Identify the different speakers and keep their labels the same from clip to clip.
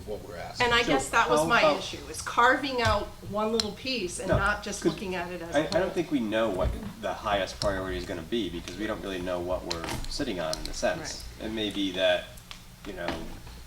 Speaker 1: what we're asking.
Speaker 2: And I guess that was
Speaker 3: how
Speaker 2: my
Speaker 3: about-
Speaker 2: issue, is carving out one little piece and
Speaker 3: No,
Speaker 2: not just
Speaker 3: 'cause
Speaker 2: looking at it as a
Speaker 3: I, I
Speaker 2: whole.
Speaker 3: don't think we know what the highest priority is gonna be, because we don't really know what we're sitting on in a sense. It may be that, you know,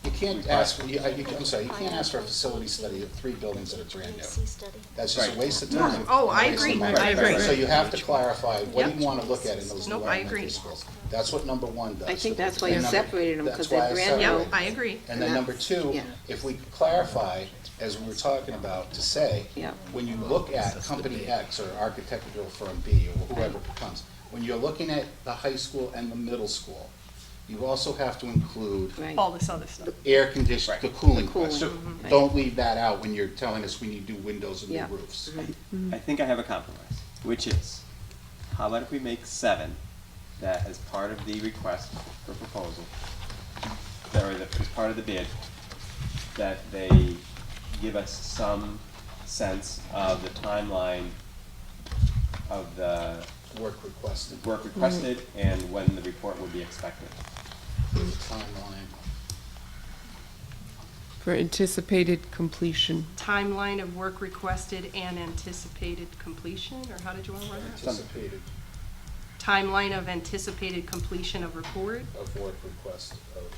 Speaker 1: You can't
Speaker 3: We-
Speaker 1: ask, you- I- you- I'm sorry, you can't ask for a facility study of three buildings that are brand new.
Speaker 4: study.
Speaker 1: That's just a
Speaker 3: Right.
Speaker 1: waste of time.
Speaker 2: Oh, I
Speaker 1: and a waste of
Speaker 2: agree.
Speaker 1: money.
Speaker 2: I agree.
Speaker 1: So you have to clarify, what do
Speaker 2: Yep.
Speaker 1: you want to look at in those new
Speaker 2: Nope, I
Speaker 1: elementary
Speaker 2: agree.
Speaker 1: schools? That's what number one does.
Speaker 5: I think that's why
Speaker 1: And
Speaker 5: you
Speaker 1: number-
Speaker 5: separated 'em,
Speaker 1: that's
Speaker 5: 'cause they're
Speaker 1: why I
Speaker 5: brand new.
Speaker 2: Yeah,
Speaker 1: separated
Speaker 2: I
Speaker 1: them.
Speaker 2: agree.
Speaker 1: And then number two,
Speaker 5: Yeah.
Speaker 1: if we clarify, as we were talking about, to say,
Speaker 5: Yeah.
Speaker 1: when you look at company X or architectural firm B or whoever it becomes, when you're looking at the high school and the middle school, you also have to include
Speaker 5: Right.
Speaker 2: All this other stuff.
Speaker 1: air condition, the cooling
Speaker 5: The cooling,
Speaker 1: question.
Speaker 5: right.
Speaker 1: Don't leave that out when you're telling us we need new windows and
Speaker 5: Yeah.
Speaker 1: new roofs.
Speaker 3: I think I have a compromise, which is, how about if we make seven, that as part of the request for proposal, that or that as part of the bid, that they give us some sense of the timeline of the
Speaker 1: Work requested,
Speaker 3: work requested and when the report would be expected.
Speaker 1: timeline.
Speaker 6: For anticipated completion.
Speaker 2: Timeline of work requested and anticipated completion, or how did you want to run that?
Speaker 1: anticipated
Speaker 2: Timeline of anticipated completion of report?
Speaker 1: of work request of.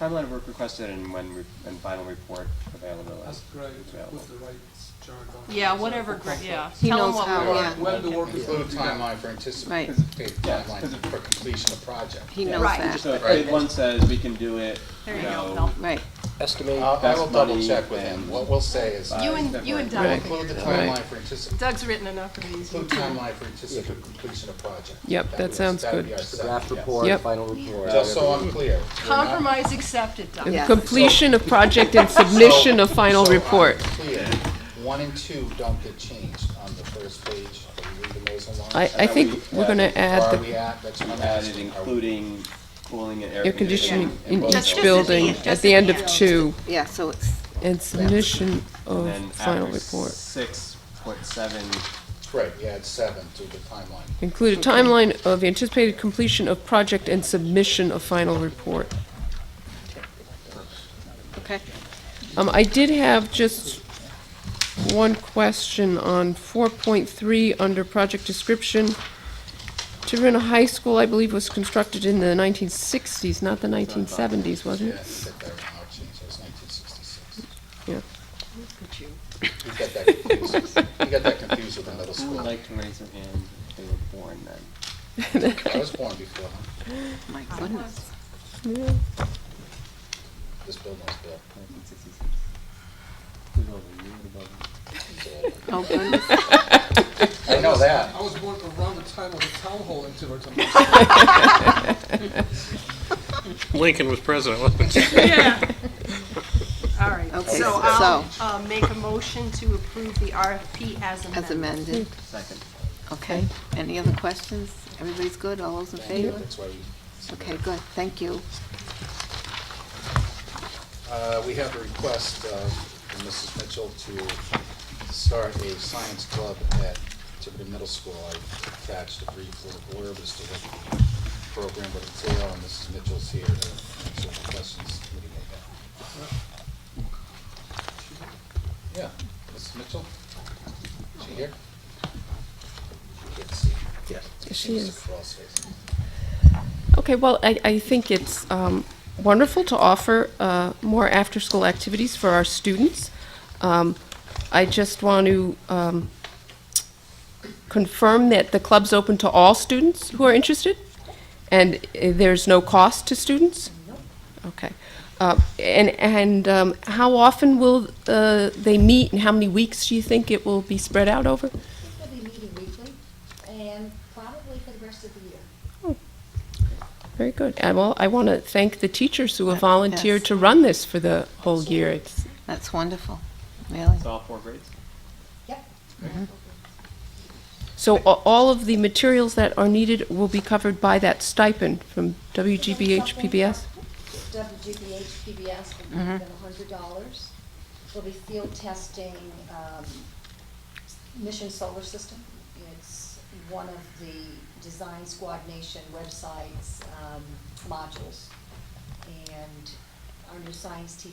Speaker 3: Timeline of work requested and when, re- and final report availability.
Speaker 7: That's great,
Speaker 3: Available.
Speaker 7: with the right jargon.
Speaker 2: Yeah, whatever, gra- Oh, yeah.
Speaker 5: He
Speaker 2: Tell 'em
Speaker 5: knows
Speaker 2: what we
Speaker 5: how,
Speaker 2: want.
Speaker 5: yeah.
Speaker 7: When the work is
Speaker 1: Include
Speaker 7: going to be done.
Speaker 1: timeline for
Speaker 5: Right.
Speaker 1: anticipated
Speaker 3: 'Cause- yeah, 'cause
Speaker 1: timeline
Speaker 3: it-
Speaker 1: for completion of project.
Speaker 5: He knows
Speaker 2: Right.
Speaker 5: that,
Speaker 3: So if
Speaker 1: Right.
Speaker 3: grade one says we can do it,
Speaker 2: There
Speaker 3: you
Speaker 2: you go,
Speaker 3: know,
Speaker 2: Mel.
Speaker 5: right.
Speaker 1: I'll- I will
Speaker 3: Best
Speaker 1: double
Speaker 3: money
Speaker 1: check with him.
Speaker 3: and-
Speaker 1: What we'll say is,
Speaker 3: Bye.
Speaker 2: You
Speaker 1: we'll
Speaker 2: and, you and
Speaker 6: Right.
Speaker 2: Doug
Speaker 1: include the
Speaker 2: figured it out.
Speaker 1: timeline for anticipated,
Speaker 2: Doug's written enough of these.
Speaker 1: include timeline for anticipated completion of project.
Speaker 6: Yep,
Speaker 1: would
Speaker 6: that
Speaker 1: be-
Speaker 6: sounds
Speaker 1: would
Speaker 6: good.
Speaker 1: be our second.
Speaker 8: Draft report,
Speaker 6: Yep.
Speaker 8: final report.
Speaker 1: Just so I'm clear. we're not-
Speaker 2: Compromise accepted, Doug.
Speaker 5: Yeah.
Speaker 6: Completion of project and submission of final
Speaker 1: So um, I'm
Speaker 6: report.
Speaker 1: clear. One and two don't get changed on the first page. Are we leaving those alone?
Speaker 6: I, I think we're gonna
Speaker 1: Or
Speaker 6: add
Speaker 1: are
Speaker 6: the
Speaker 1: uh, we at, that's what I'm
Speaker 3: added
Speaker 1: asking. Are we-
Speaker 3: including cooling and
Speaker 6: air conditioning in
Speaker 3: both
Speaker 6: each
Speaker 2: Just-
Speaker 3: buildings.
Speaker 6: building
Speaker 2: just
Speaker 6: at the end of
Speaker 2: just-
Speaker 6: two
Speaker 5: Yeah, so it's,
Speaker 6: and submission
Speaker 3: And
Speaker 6: of
Speaker 3: then
Speaker 6: final
Speaker 3: after
Speaker 6: report.
Speaker 3: Six, put seven,
Speaker 1: Right, you add seven to the timeline.
Speaker 6: Include a timeline of anticipated completion of project and submission of final report.
Speaker 5: okay.
Speaker 6: Um, I did have just one question on four point three under project description. Tiverton High School, I believe, was constructed in the nineteen sixties, not the nineteen seventies, was
Speaker 1: Yeah, I
Speaker 6: it?
Speaker 1: think that right now changed. It was nineteen sixty-six.
Speaker 6: Yeah.
Speaker 1: You got that confused. You got that confused with the middle
Speaker 3: who would
Speaker 1: school.
Speaker 3: like to raise their hand if they were born then?
Speaker 1: I was born before, huh?
Speaker 5: My goodness.
Speaker 1: This building was built.
Speaker 3: Nineteen sixty-six. Who's older, you or the building?
Speaker 5: Oh, goodness.
Speaker 1: I know that.
Speaker 7: I was born around the time of the town hall in Tiverton.
Speaker 8: Lincoln was president, wasn't he?
Speaker 2: Yeah. All right,
Speaker 5: Okay,
Speaker 2: so I'll,
Speaker 5: so-
Speaker 2: uh, make a motion to approve the RFP as amended.
Speaker 5: As amended,
Speaker 3: Second.
Speaker 5: okay. Any other questions? Everybody's good? All those in favor?
Speaker 1: That's why we,
Speaker 5: Okay, good, thank you.
Speaker 1: uh, we have a request, uh, from Mrs. Mitchell to start a science club at Tiverton Middle School. I attached a brief little blurb as to what the program would entail, and Mrs. Mitchell's here to answer the questions the committee may have. Yeah, Mrs. Mitchell? Is she here? She can't see.
Speaker 6: She
Speaker 1: She's
Speaker 6: is.
Speaker 1: across face.
Speaker 6: Okay, well, I, I think it's um, wonderful to offer uh, more after-school activities for our students. Um, I just want to um, confirm that the club's open to all students who are interested, and uh, there's no cost to students? Okay. Uh, And, and um, how often will uh, they meet, and how many weeks do you think it will be spread out over?
Speaker 9: We'll be meeting weekly and probably for the rest of the year.
Speaker 6: Very good. And well, I want to thank the teachers who have volunteered
Speaker 5: Yes.
Speaker 6: to run this for the whole year. It's,
Speaker 5: That's wonderful, really.
Speaker 3: It's all four grades?
Speaker 9: Yep.
Speaker 6: so a- all of the materials that are needed will be covered by that stipend from WGBH PBS?
Speaker 9: WGBH PBS will be given a hundred dollars. There'll be field testing, um, Mission Solar System. It's one of the Design Squad Nation websites, um, modules. And our new science teacher